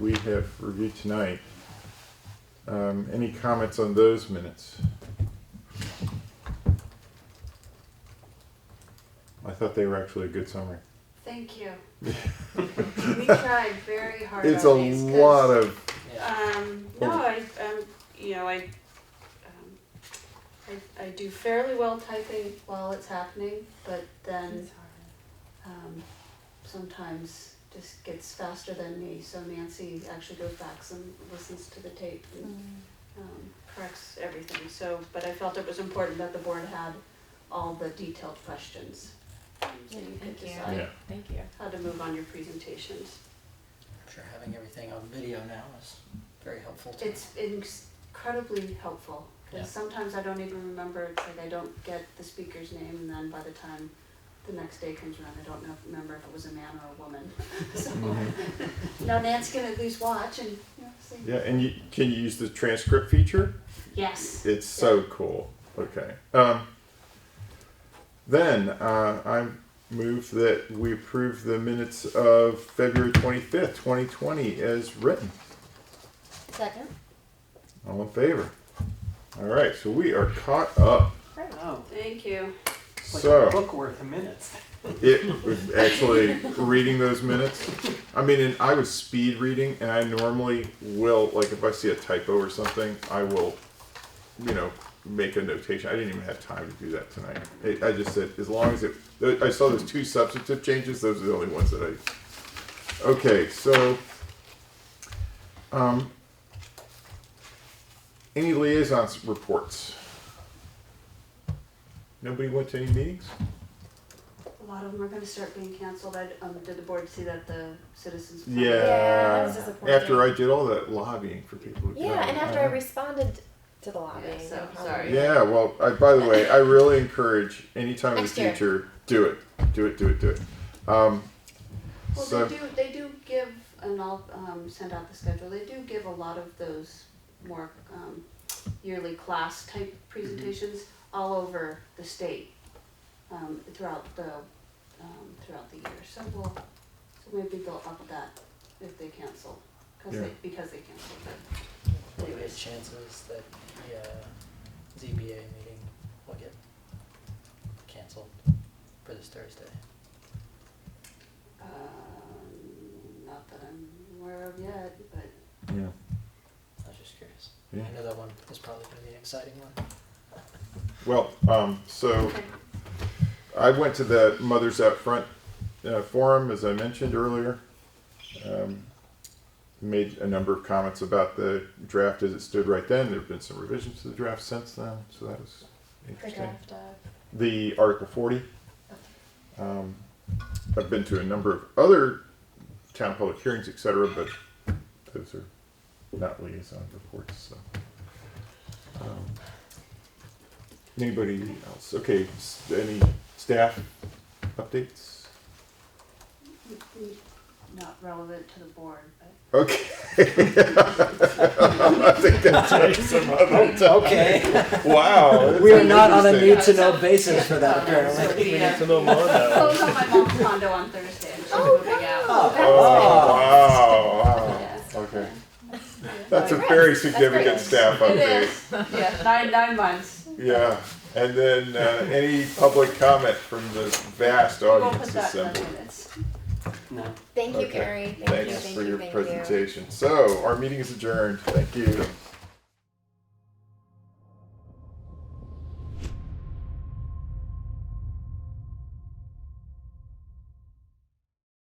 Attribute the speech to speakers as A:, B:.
A: we have reviewed tonight. Um, Any comments on those minutes? I thought they were actually a good summary.
B: Thank you. We tried very hard
A: It's a
B: on these. 'cause,
A: lot of,
B: Um, no, I, um, you know, I, um, I, I do fairly well typing while it's happening, but then, um, sometimes just gets faster than me, so Nancy actually goes back and listens to the tape
C: Mm.
B: and, um, corrects everything, so, but I felt it was important that the board had all the detailed questions. So you could
C: Thank you.
B: decide.
A: yeah,
C: Thank you.
B: how to move on your presentations.
D: I'm sure having everything on video now is very helpful to
B: It's incredibly helpful,
D: Yeah.
B: because sometimes I don't even remember, it's like I don't get the speaker's name, and then by the time the next day comes around, I don't know, remember if it was a man or a woman. So,
A: Mm-hmm.
B: now Nancy can at least watch and, you know, see.
A: yeah, and you, can you use the transcript feature?
B: Yes,
A: It's so cool. Okay. Um, then uh, I move that we approve the minutes of February 25th, 2020 as written.
C: Second.
A: All in favor? All right, so we are caught up.
D: Oh,
B: thank you.
D: like a
A: So
D: book worth of minutes.
A: it was actually reading those minutes. I mean, and I was speed reading, and I normally will, like, if I see a typo or something, I will, you know, make a notation. I didn't even have time to do that tonight. It, I just said, as long as it, I saw those two substantive changes, those are the only ones that I. Okay, so, um, any liaisons reports? Nobody went to any meetings?
B: A lot of them are gonna start being canceled, I, um, did the board see that the citizens? plan?
A: Yeah.
C: Yeah, that was disappointing.
A: After I did all that lobbying for people. to
C: Yeah,
A: come.
C: and after I responded to the lobby.
B: Yeah, so,
C: no problem.
B: sorry.
A: Yeah, well, I, by the way, I really encourage anytime in the
C: Next year.
A: future, do it, do it, do it, do it. Um,
B: Well,
A: so,
B: they do, they do give, and I'll, um, send out the schedule, they do give a lot of those more, um, yearly class type presentations all over the state, um, throughout the, um, throughout the year, so we'll, so maybe they'll up that if they cancel, cause
A: Yeah.
B: they, because they canceled it.
D: What are the
B: Anyways.
D: chances that the uh, ZBA meeting will get canceled for this Thursday?
B: Um, not that I'm aware of yet, but,
A: yeah,
D: I was just curious.
A: yeah.
D: I know that one is probably going to be an exciting one.
A: Well, um, so
B: okay,
A: I went to the Mothers Out Front uh, forum, as I mentioned earlier. Um, made a number of comments about the draft as it stood right then. There have been some revisions to the draft since then, so that was
C: The
A: interesting.
C: draft of.
A: the Article 40. Um, I've been to a number of other town public hearings, et cetera, but those are not liaison reports, so. Um, Anybody else? Okay, s- any staff updates?
B: not relevant to the board, but.
A: Okay. I think that's some other time.
D: Okay,
A: Wow.
D: we are not on a
A: Interesting.
D: need to know basis for that
B: So it'd
D: apparently.
B: be, uh,
E: To know more now.
B: Close on my mom's condo on Thursday. and she's moving out.
A: Oh, wow,
B: Yes.
A: wow. Okay. That's a very significant staff
B: It
A: update.
B: is. Yeah, nine nine months.
A: Yeah, and then uh, any public comment from this vast
B: We won't
A: audience
B: put that in the
A: assembled.
B: minutes.
D: No.
C: Thank you,
A: Okay.
C: Carrie. Thank you,
A: Thanks
C: thank
A: for
C: you,
A: your
C: thank you.
A: presentation. So our meeting is adjourned. Thank you.